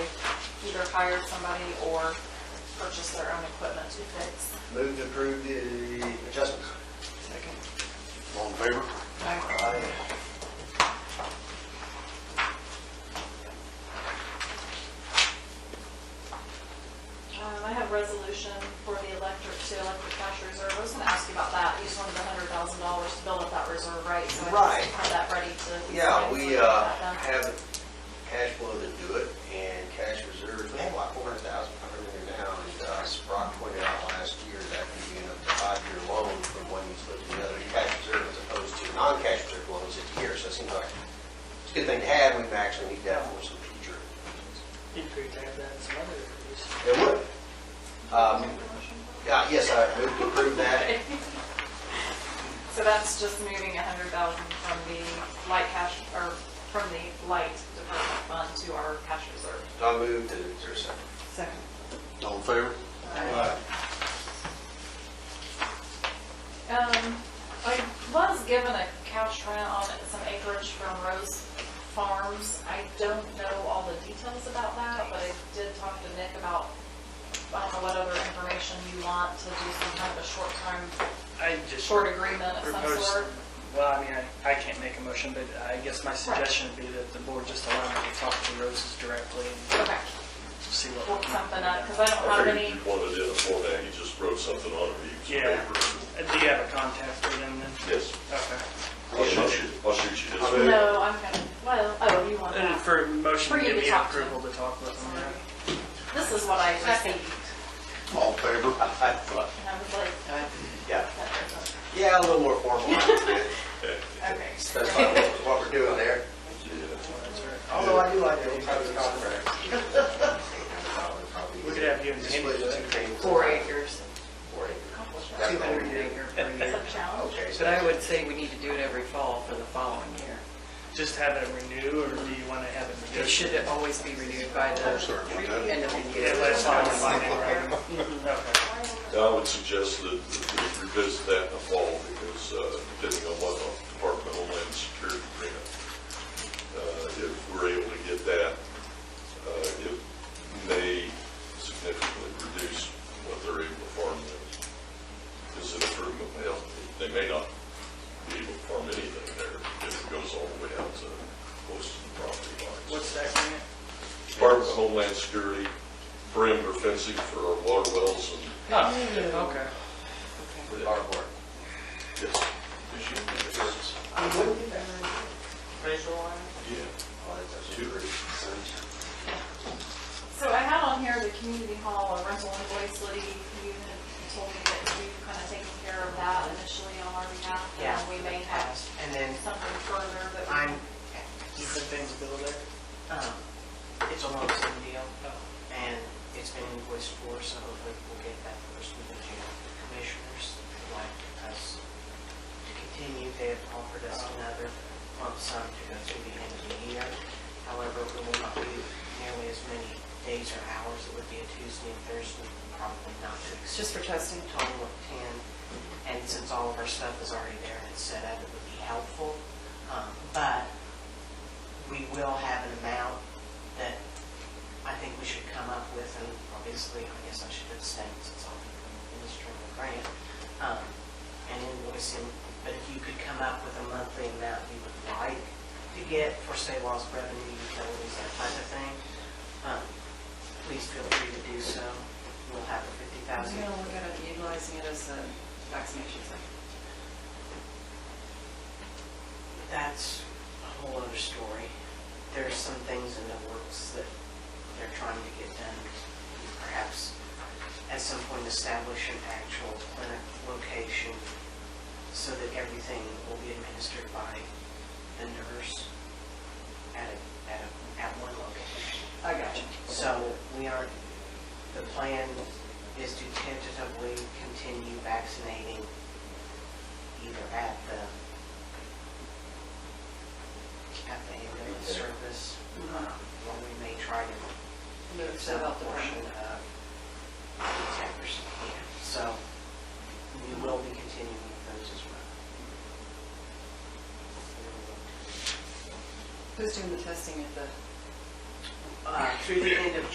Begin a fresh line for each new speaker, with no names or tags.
either hired somebody or purchased their own equipment to fix.
Move to approve the adjustments.
Second.
All in favor?
Um,
Aye.
Um, I have resolution for the electric to electric cash reserve. I was gonna ask you about that. You just wanted the hundred thousand dollars to build up that reserve, right? So I
Right.
just Have that ready to.
Yeah, we
Get
uh,
that done.
have cash flow to do it and cash reserves. We have like four hundred thousand coming in now. And uh, Brock pointed out last year that could be an up to five-year loan from one utility to another. Cash reserve as opposed to non-cash reserve loans at year. So it seems like it's a good thing to have. We actually need that for some future.
It'd be great to have that in some other areas.
It would. Um, Yeah, yes, I move to approve that.
So that's just moving a hundred thousand from the light cash, or from the light department fund to our cash reserve.
I move to, is there a second?
Second.
All in favor?
Um, I was given a cash rent on some acreage from Rose Farms. I don't know all the details about that, but I did talk to Nick about, I don't know what other information you want to do some kind of a short time,
I just.
short agreement of some
proposed-
sort.
Well, I mean, I, I can't make a motion, but I guess my suggestion would be that the board just allow me to talk to Roses directly and
Okay,
see what
work
we can.
something up, because I don't have
I
any,
figured you wanted it in a format, you just wrote something on it, you used
Yeah.
paper. and-
Uh, Do you have a contact for them then?
Yes,
Okay.
I'll shoot you, I'll shoot you this. way.
no, I'm gonna, well, oh, you want
And
that.
for a motion,
For you
give
to
me
talk to.
approval to talk with them. yeah.
This is what I received,
All in favor?
and I was like, that
Yeah,
doesn't-
yeah, a little more formal. That's
okay.
fine, what- what we're doing there. Although I do like that. type of contract.
We could have you and Andy
Split
do
the two
it.
things.
Four acres,
Four acres.
two hundred acre per
Is
year.
that a challenge?
Okay, so
But I would say we need to do it every fall for the following year.
Just have it renew, or do you want to have it renewed?
It should always be renewed by the
Sorry about that.
end of the
Yeah,
year.
last time I signed it, right? Okay.
Now, I would suggest that we revisit that in the fall, because uh, depending on what the Department of Homeland Security grant, uh, if we're able to get that, uh, it may significantly reduce what they're able to farm there. It's an improvement, well, they may not be able to farm anything there, if it goes all the way out to close to the property lines.
What's that grant?
Department of Homeland Security perimeter fencing for our water wells and
Hmm.
Oh, okay.
cardboard.
Yes. Issue concerns? Yeah.
Oh, that's a super-
So I had on here the community hall, a rental invoice, Liddy, you had told me that you've kind of taken care of that initially on our behalf. and
Yeah.
We may have
And then
something further that we.
I'm,
You said things build there?
um, it's a lump sum deal, and it's been invoiced for, so hopefully we'll get that first with the jail commissioners. They'd Like us to continue, they have offered us another lump sum to go through the end of the year. However, we will not do nearly as many days or hours, it would be a Tuesday and Thursday, probably not to. It's just for testing. Total of ten, and since all of our stuff is already there and it's set up, it would be helpful. Um, But we will have an amount that I think we should come up with, and obviously, I guess I should abstain since I'm administering the grant, um, and invoicing, but if you could come up with a monthly amount you would like to get for, say, lost revenue, utilities, that type of thing, um, please feel free to do so. We'll have the fifty
I was
thousand.
gonna look at it, utilizing it as a vaccination site.
That's a whole other story. There's some things in the works that they're trying to get done. Perhaps at some point establish an actual clinic location so that everything will be administered by the nurse at, a- at, a- at one location.
I got you.
So we are, the plan is to tentatively continue vaccinating either at the, at the ambulance service, um, or we may try to
Move
get
to the
some
health
portion
department.
of Zephyr's care. So we will be continuing with those as well.
Who's doing the testing at the?
Uh, Through the end of